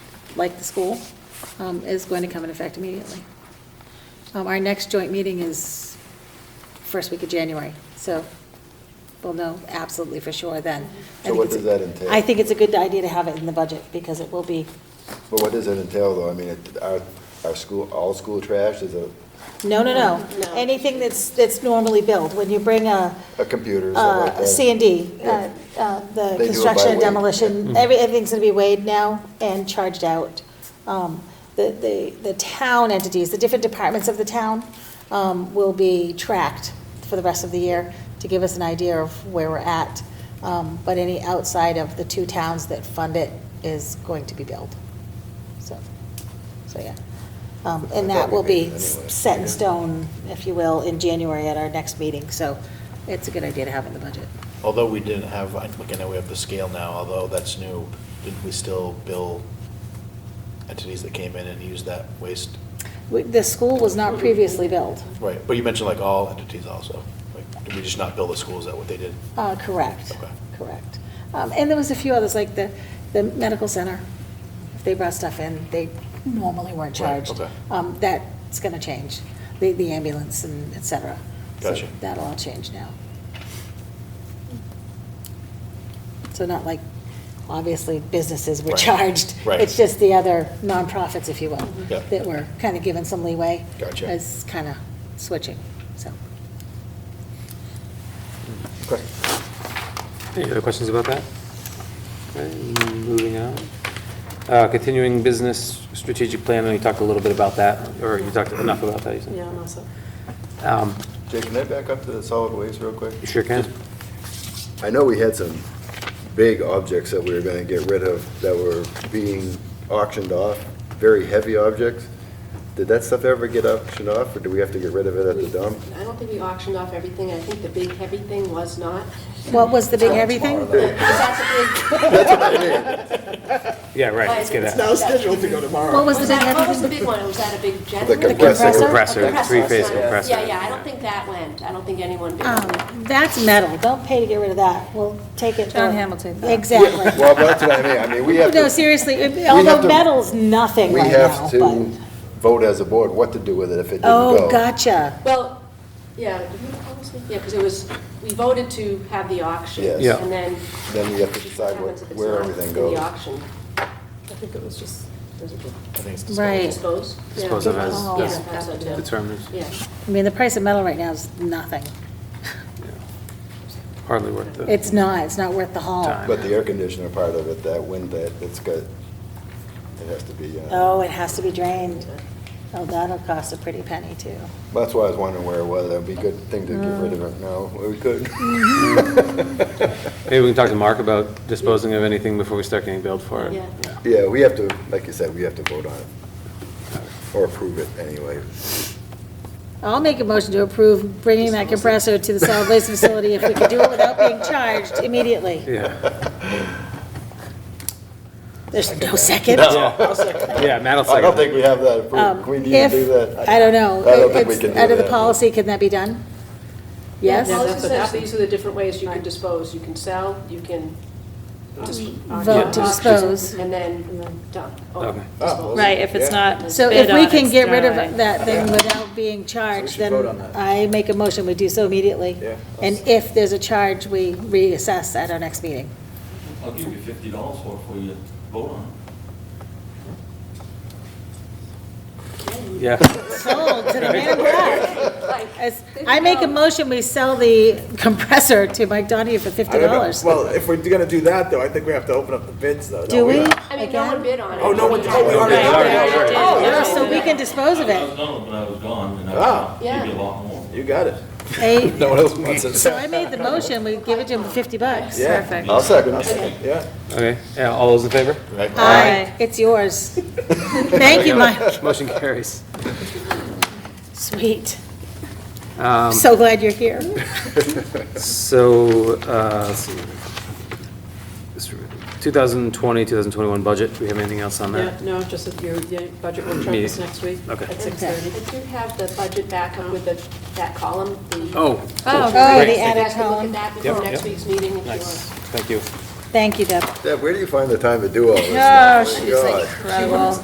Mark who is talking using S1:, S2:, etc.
S1: like the school, um, is going to come into effect immediately. Um, Our next joint meeting is first week of January, so we'll know absolutely for sure then. I
S2: So
S1: think
S2: what
S1: it's a-
S2: does that entail?
S1: I think it's a good idea to have it in the budget, because it will be,
S2: But what does it entail, though? I mean, it- our, our school, all school trash is a,
S1: no, no, no,
S3: No.
S1: anything that's, that's normally billed, when you bring a,
S2: a computer, stuff like
S1: uh,
S2: that.
S1: C and D, Uh,
S2: Yeah.
S1: the
S2: They do Mm-hmm. it
S1: construction
S2: by
S1: and
S2: weight.
S1: demolition, every, everything's gonna be weighed now and charged out. Um, The, the, the town entities, the different departments of the town, um, will be tracked for the rest of the year to give us an idea of where we're at. Um, but any outside of the two towns that fund it is going to be billed, so, so, yeah. Um,
S2: I
S1: and
S2: thought
S1: that
S2: we
S1: will be
S2: made it
S1: s-
S2: anyway.
S1: set in
S2: Yeah.
S1: stone, if you will, in January at our next meeting, so it's a good idea to have in the budget.
S4: Although we didn't have, I think, I know we have the scale now, although that's new, didn't we still bill entities that came in and used that waste?
S1: We- The school was not previously billed,
S4: Right, but you mentioned like all entities also. Like, did we just not bill the schools? Is that what they did?
S1: Uh, correct,
S4: Okay.
S1: correct. Um, And there was a few others, like the, the medical center, if they brought stuff in, they normally weren't
S4: Right,
S1: charged.
S4: okay.
S1: Um, That's gonna change, the, the ambulance and et cetera. So
S4: Gotcha.
S1: That'll all change now. So not like, obviously, businesses were
S4: Right,
S1: charged.
S4: right.
S1: It's just the other nonprofits, if you will,
S4: Yeah.
S1: that were kind of given some leeway.
S4: Gotcha.
S1: As kind of switching, so.
S2: Okay.
S5: Any other questions about that? Okay, Moving on. Uh, Continuing business strategic plan, and you talked a little bit about that, or you talked enough about that, you said?
S3: Yeah, I'm also.
S5: Um,
S2: Jake, can I back up to the solid waste real quick?
S5: You sure can?
S2: I know we had some big objects that we were gonna get rid of that were being auctioned off, very heavy objects. Did that stuff ever get auctioned off, or do we have to get rid of it at the dump?
S3: I don't think we auctioned off everything. I think the big heavy thing was not.
S1: What was the big heavy thing?
S5: Yeah, right, let's get that.
S3: now scheduled to go tomorrow.
S1: What was the big heavy
S3: What was the
S1: thing?
S3: big one? Was that a big jet?
S2: The
S3: engine?
S2: compressor. The
S5: compressor,
S3: A
S5: three-phase
S3: sorry.
S5: compressor,
S3: Yeah, yeah, I
S5: yeah.
S3: don't think that went. I don't think anyone bid on that.
S1: Um, That's metal, don't pay to get rid of that, we'll take it.
S6: John
S1: for-
S6: Hamilton.
S1: Exactly.
S2: Well, that's what I mean, I mean, we have
S1: No,
S2: to,
S1: seriously, it-
S2: have
S1: although
S2: to-
S1: metal's nothing
S2: we
S1: right now,
S2: have
S1: but.
S2: to vote as a board what to do with it if it didn't go.
S1: Oh, gotcha,
S3: Well, yeah, did we honestly- yeah, because it was, we voted to have the auction.
S2: Yes.
S5: Yeah.
S3: And then.
S2: Then we have to decide what-
S3: Happens if it's
S2: where
S3: not
S2: everything
S3: in
S2: goes.
S3: The auction. I think it was just, was it
S4: I think it's
S1: Right.
S3: dispose? Yeah,
S5: Dispose of as-
S3: dispose.
S1: as
S3: Yeah, that's what it is.
S5: Determiners,
S3: Yeah.
S1: I mean, the price of metal right now is nothing,
S5: hardly worth the
S1: it's not, it's not worth the haul.
S5: time.
S2: But the air conditioner part of it, that wind, that, it's got, it has to be, uh,
S1: Oh, it has to be drained, oh, that'll cost a pretty penny too.
S2: that's why I was wondering where it was, that'd be a good thing to get rid of
S1: Mm.
S2: it now, we could.
S1: Mm-hmm.
S5: Maybe we can talk to Mark about disposing of anything before we start getting billed for it.
S3: Yeah.
S2: Yeah, we have to, like you said, we have to vote on it, or approve it anyway.
S1: I'll make a motion to approve bringing that compressor to the solid waste facility if we could do it without being charged immediately.
S5: Yeah,
S1: There's no second?
S5: yeah, Matt
S2: I
S5: will second
S2: don't
S5: that.
S2: think we have that approved,
S1: Um,
S2: we need to
S1: if-
S2: do that.
S1: I don't know.
S2: I don't think we
S1: It's-
S2: can do
S1: Under the
S2: that.
S1: policy, can that be done? Yes?
S3: Yeah, that's what that- These are the different ways you can dispose. You can sell, you can just.
S1: Vote to
S3: auction,
S1: dispose.
S3: And then dump. or
S5: Okay. Oh,
S3: dispose.
S6: Right, if it's
S2: Yeah.
S6: not
S1: So
S6: bid
S1: if we
S6: on,
S1: can
S6: it's
S1: get rid
S6: thrown
S1: of
S6: away.
S1: that thing without being charged,
S2: should
S1: then
S2: vote on that.
S1: I make a motion, we do so immediately.
S2: Yeah.
S1: And if there's a charge, we reassess at our next meeting.
S7: I'll give you fifty dollars for it for you to vote on it.
S5: Yeah,
S1: Sold to the man in black.
S3: Like,
S1: As- I make a motion, we sell the compressor to Mike Donahue for
S8: I
S1: fifty
S8: don't know.
S1: dollars.
S8: Well, if we're gonna do that, though, I think we have to open up the bids, though.
S1: Do
S8: don't
S1: we?
S3: I mean, no one
S1: Again?
S3: bid on it.
S8: Oh, no one, oh, we already.
S1: Oh, yeah, so we can dispose of
S7: I was
S1: it.
S7: done, but I was gone, and
S8: Ah.
S7: I was gonna give you a lot more.
S8: You got it.
S1: Hey,
S8: No one else wants it.
S1: So I made the motion, we give it to him for fifty bucks.
S8: Yeah,
S6: Perfect.
S2: I'll second it.
S8: yeah.
S5: okay, Yeah, all those in favor?
S1: Aye, it's yours. Thank you, Mike.
S5: Motion carries.
S1: Sweet. So glad you're here.
S5: So, uh, let's see. This- 2020, 2021 budget, do we have anything else on
S9: Yeah,
S5: that?
S9: no, just that your your budget workshop
S5: Me-
S9: is next week
S5: okay.
S9: at
S3: I
S9: 6:30.
S3: do have the budget backup with the, that column. the-
S5: Oh,
S1: Oh, the
S3: You guys
S1: added
S3: can look at
S1: column.
S3: that before
S5: Yep,
S3: next
S5: yep.
S3: week's meeting if you
S5: nice,
S3: want.
S5: thank you.
S2: Thank you, Deb.
S1: Deb, where do you find the time to do all this?
S2: Oh,
S1: stuff? My
S2: she's
S1: God.
S2: incredible.